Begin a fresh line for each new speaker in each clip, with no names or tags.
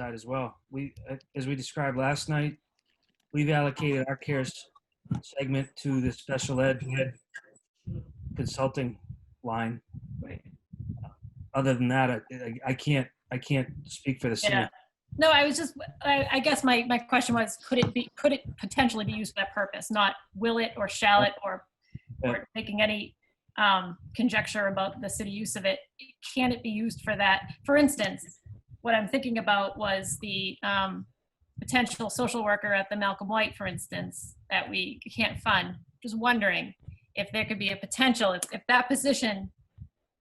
side as well. We, uh, as we described last night, we've allocated our cares segment to the special ed consulting line.
Right.
Other than that, I, I- I can't, I can't speak for the
Yeah.
city.
No, I was just, I, I guess my, my question was, could it be, could it potentially be used for that purpose? Not will it or shall it or,
Yeah.
or making any um, conjecture about the city use of it. Can it be used for that? For instance, what I'm thinking about was the um, potential social worker at the Malcolm White, for instance, that we can't fund. Just wondering if there could be a potential, if, if that position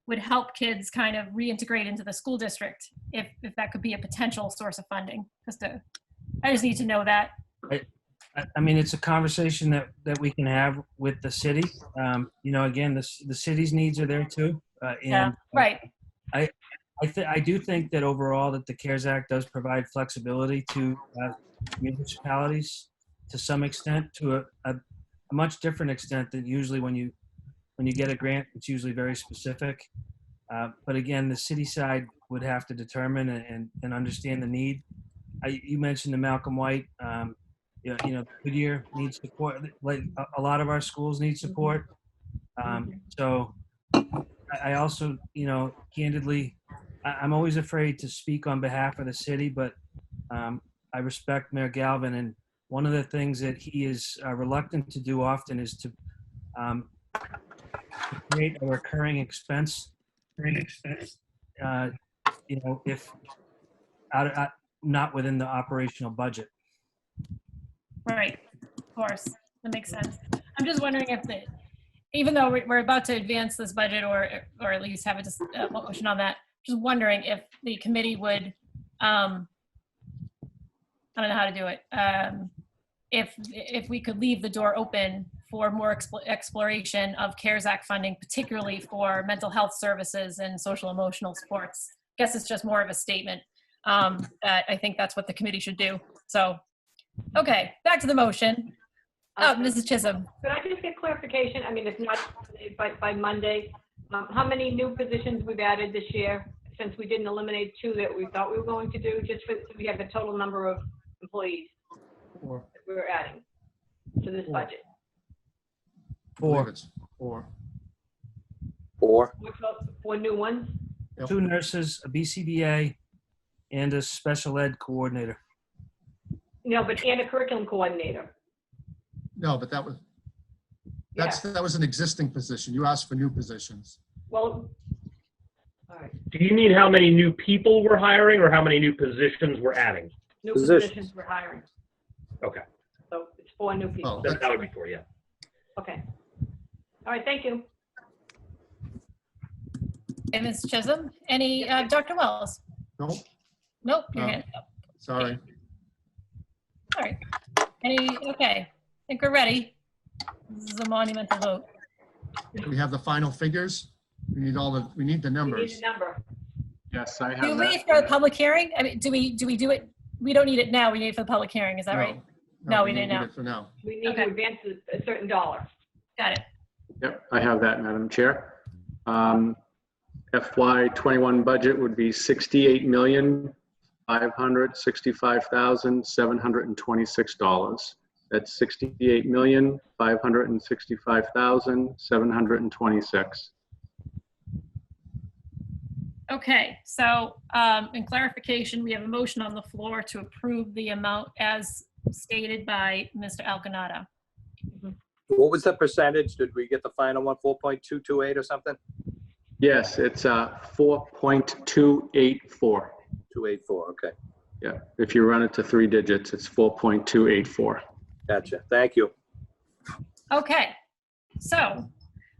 would help kids kind of reintegrate into the school district if, if that could be a potential source of funding. Just to, I just need to know that.
I, I mean, it's a conversation that, that we can have with the city. Um, you know, again, the, c- the city's needs are there too. Uh,
Yeah,
and
right.
I, th- I do think that overall that the CARES Act does provide flexibility to uh, municipalities to some extent, to a, a, a much different extent than usually when you when you get a grant, it's usually very specific. Uh, but again, the city side would have to determine and, and, and understand the need. I, you mentioned the Malcolm White, um, you, know, you know, Goodyear needs support. Like a, a lot of our schools need support. Um, so I, I also, you know, candidly, I, I'm always afraid to speak on behalf of the city, but um, I respect Mayor Galvin, and one of the things that he is uh, reluctant to do often is to um, create a recurring expense. Recurring expense. Uh, you know, if out of, out, not within the operational budget.
Right, of course, that makes sense. I'm just wondering if the, even though we- we're about to advance this budget or, or at least have a dis- uh, a motion on that, just wondering if the committee would, um, I don't know how to do it, um, if, if we could leave the door open for more expl- exploration of CARES Act funding, particularly for mental health services and social emotional supports. Guess it's just more of a statement, um, that I think that's what the committee should do, so. Okay, back to the motion. Oh, Mrs. Chisholm,
Could Um, I just get clarification? I mean, it's not, today, but by Monday, um, how many new positions we've added this year? Since we didn't eliminate two that we thought we were going to do, just for, so we have the total number of employees
Four.
that we're adding to this budget.
Four,
Four.
Four.
What's up, four new ones?
Yep.
two nurses, a BCBA, and a special ed coordinator.
No, but and a curriculum coordinator.
No, but that was,
Yeah,
that's, that was an existing position. You asked for new positions.
well, all right.
Do you mean how many new people we're hiring or how many new positions we're adding?
New
Positions.
positions we're hiring.
Okay.
So it's four new people.
Oh,
That that would be for you.
Okay. All right, thank you.
and Mrs. Chisholm, any, uh, Dr. Wells?
Nope,
Nope, your
No.
hand up.
sorry.
All right. Any, okay, I think we're ready. This is a monumental vote.
We have the final figures. We need all the, we need the
We need
numbers.
a number.
Yes, I
Do
have
we for a
that.
public hearing? I mean, do we, do we do it? We don't need it now, we need it for the public hearing, is that right? No, we
don't
didn't
need
know.
it For now.
We need to
Okay.
advance a a certain dollar.
Got it.
Yep, I have that, Madam Chair. Um, FY '21 budget would be $68,565,726. That's $68,565,726.
Okay, so, um, in clarification, we have a motion on the floor to approve the amount as stated by Mr. Alcanada.
What was the percentage? Did we get the final one, 4.228 or something?
Yes, it's uh, 4.284.
284, okay.
Yeah, if you run it to three digits, it's 4.284.
Gotcha. Thank you.
Okay, so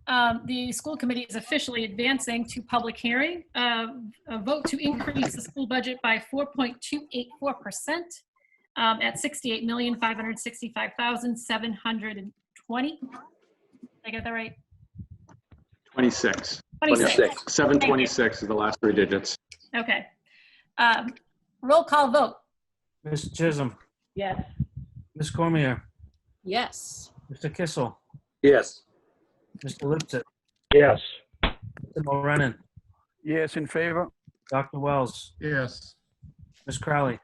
um, the school committee is officially advancing to public hearing. uh, A vote to increase the school budget by 4.284% um, at 68565720 Did I get that right?
26.
26,
26.
726 is the last three digits.
okay. Um, Roll call vote,
Ms. Chisholm,
Yes.
Ms. Cormier,
Yes.
Mr. Kissel,
Yes.
Mr. Lipset,
Yes.
Mr. Mulrennan,
Yes, in favor?
Dr. Wells,
Yes.
Ms. Crowley.